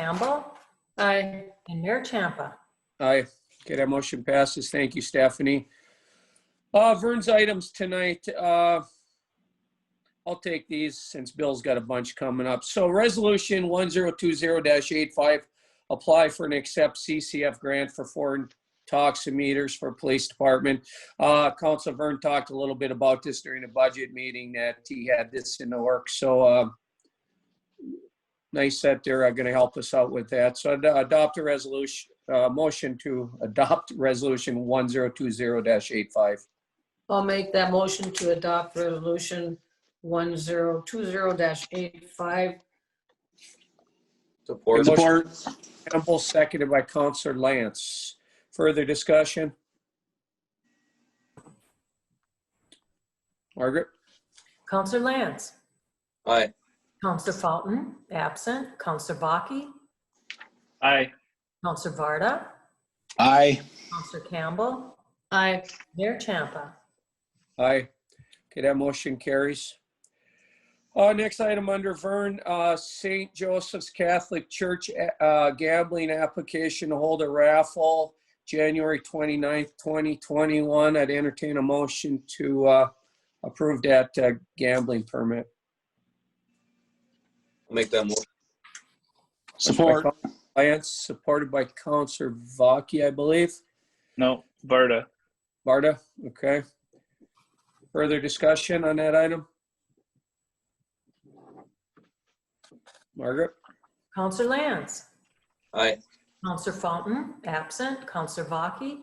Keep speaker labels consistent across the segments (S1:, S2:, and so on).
S1: Campbell,
S2: Aye.
S1: and Mayor Champa.
S3: Aye. Okay, that motion passes. Thank you, Stephanie. Uh, Vern's items tonight, uh, I'll take these since Bill's got a bunch coming up. So resolution one zero two zero 85 apply for and accept CCF grant for foreign toximeters for police department. Uh, Council Vern talked a little bit about this during the budget meeting that he had this in the works, so, uh, nice that they're going to help us out with that. So I'd adopt a resolution, uh, motion to adopt resolution 1020-85.
S2: I'll make that motion to adopt resolution 1020-85.
S4: Support.
S3: Support. Campbell, seconded by Counselor Lance. Further discussion? Margaret?
S1: Counselor Lance,
S4: Aye.
S1: Counselor Fountain, absent. Counselor Baki,
S5: Aye.
S1: Counselor Varda,
S6: Aye.
S1: Counselor Campbell,
S2: Aye.
S1: Mayor Champa.
S3: Aye. Okay, that motion carries. Uh, next item under Vern, uh, St. Joseph's Catholic Church, uh, gambling application to hold a raffle, January 29th, 2021. I'd entertain a motion to, uh, approve that uh, gambling permit.
S4: I'll Make that motion.
S6: Support.
S3: Lance, supported by Counselor Vaki, I believe.
S5: No, Varda.
S3: Barda, okay. Further discussion on that item? Margaret?
S1: Counselor Lance,
S4: Aye.
S1: Counselor Fountain, absent. Counselor Baki,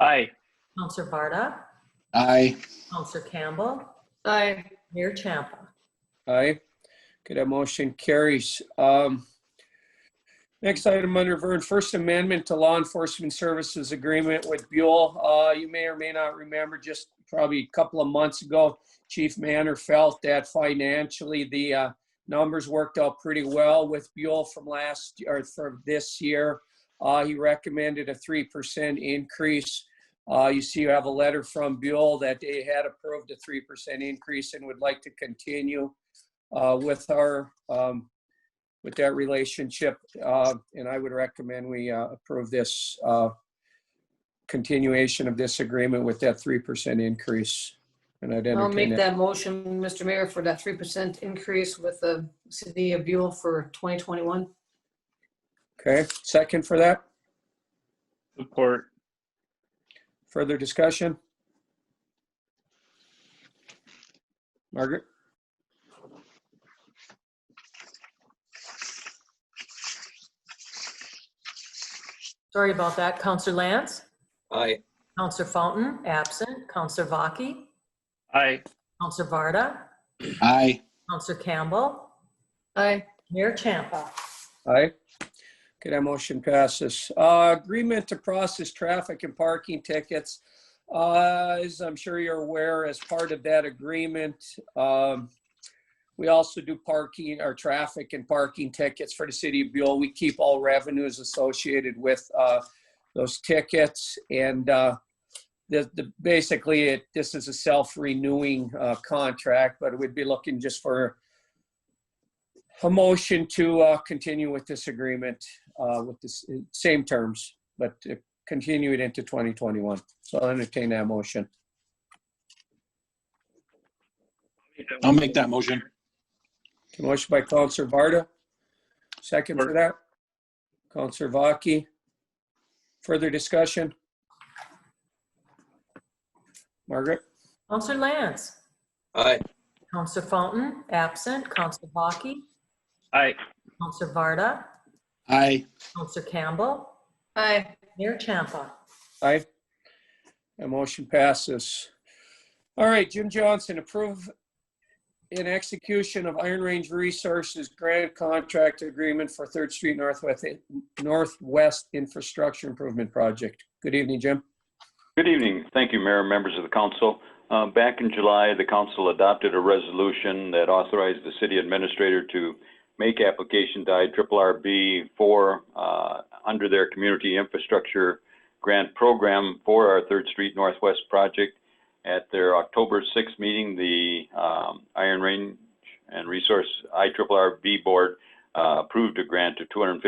S5: Aye.
S1: Counselor Varda,
S6: Aye.
S1: Counselor Campbell,
S2: Aye.
S1: Mayor Champa.
S3: Aye. Okay, that motion carries. Um, Next item under Vern, First Amendment to Law Enforcement Services Agreement with Buell. Uh, You may or may not remember, just probably a couple of months ago, Chief Manner felt that financially, the uh, numbers worked out pretty well with Buell from last, or from this year. Uh, He recommended a 3% increase. Uh, You see, you have a letter from Buell that they had approved a 3% increase and would like to continue uh, with our, um, with that relationship. uh, And I would recommend we uh, approve this uh, continuation of this agreement with that 3% increase. And I'd
S2: I'll
S3: entertain
S2: make
S3: that.
S2: that motion, Mr. Mayor, for that 3% increase with the city of Buell for 2021.
S3: Okay, second for that.
S5: Support.
S3: Further discussion? Margaret?
S1: Sorry about that. Counselor Lance,
S4: Aye.
S1: Counselor Fountain, absent. Counselor Baki,
S5: Aye.
S1: Counselor Varda,
S6: Aye.
S1: Counselor Campbell,
S2: Aye.
S1: Mayor Champa.
S3: Aye. Okay, that motion passes. Uh, Agreement to process traffic and parking tickets. Uh, As I'm sure you're aware, as part of that agreement, um, we also do parking, or traffic and parking tickets for the city of Buell. We keep all revenues associated with uh, those tickets. And uh, the, the, basically, it this is a self-renewing uh, contract, but we'd be looking just for a motion to uh, continue with this agreement uh, with the s- same terms, but to continue it into 2021. So I'll entertain that motion.
S6: I'll make that motion.
S3: Okay, Motion by Counselor Varda. Second for that. Counselor Vaki. Further discussion? Margaret?
S1: Counselor Lance,
S4: Aye.
S1: Counselor Fountain, absent. Counselor Baki,
S5: Aye.
S1: Counselor Varda,
S6: Aye.
S1: Counselor Campbell,
S2: Aye.
S1: Mayor Champa.
S3: Aye. That motion passes. All right, Jim Johnson, approve in execution of Iron Range Resources Grant Contract Agreement for Third Street Northwest, Northwest Infrastructure Improvement Project. Good evening, Jim.
S7: Good evening. Thank you, Mayor, members of the council. Uh, Back in July, the council adopted a resolution that authorized the city administrator to make application to IRRRB for, uh, under their community infrastructure grant program for our Third Street Northwest project. At their October 6th meeting, the um, Iron Range and Resource IRRRB Board uh, approved a grant of two hundred and fifty